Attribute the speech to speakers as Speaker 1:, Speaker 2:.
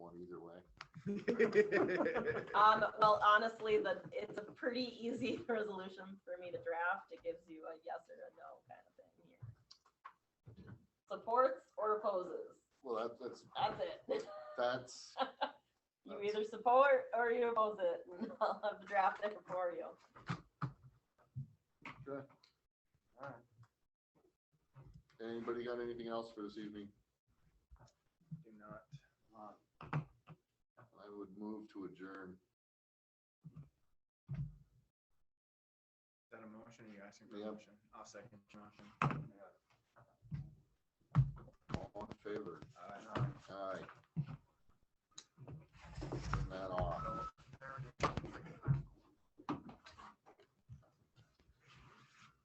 Speaker 1: Um, well, honestly, the, it's a pretty easy resolution for me to draft. It gives you a yes or a no kind of thing here. Supports or opposes,
Speaker 2: Well, that- that's,
Speaker 1: that's it.
Speaker 2: that's,
Speaker 1: You either support or you oppose it. and I'll have the draft there for you.
Speaker 2: anybody got anything else for this evening?
Speaker 3: Do not.
Speaker 2: I would move to adjourn.
Speaker 3: Is that a motion? Are you asking for a
Speaker 2: Yep.
Speaker 3: motion? I'll second your motion.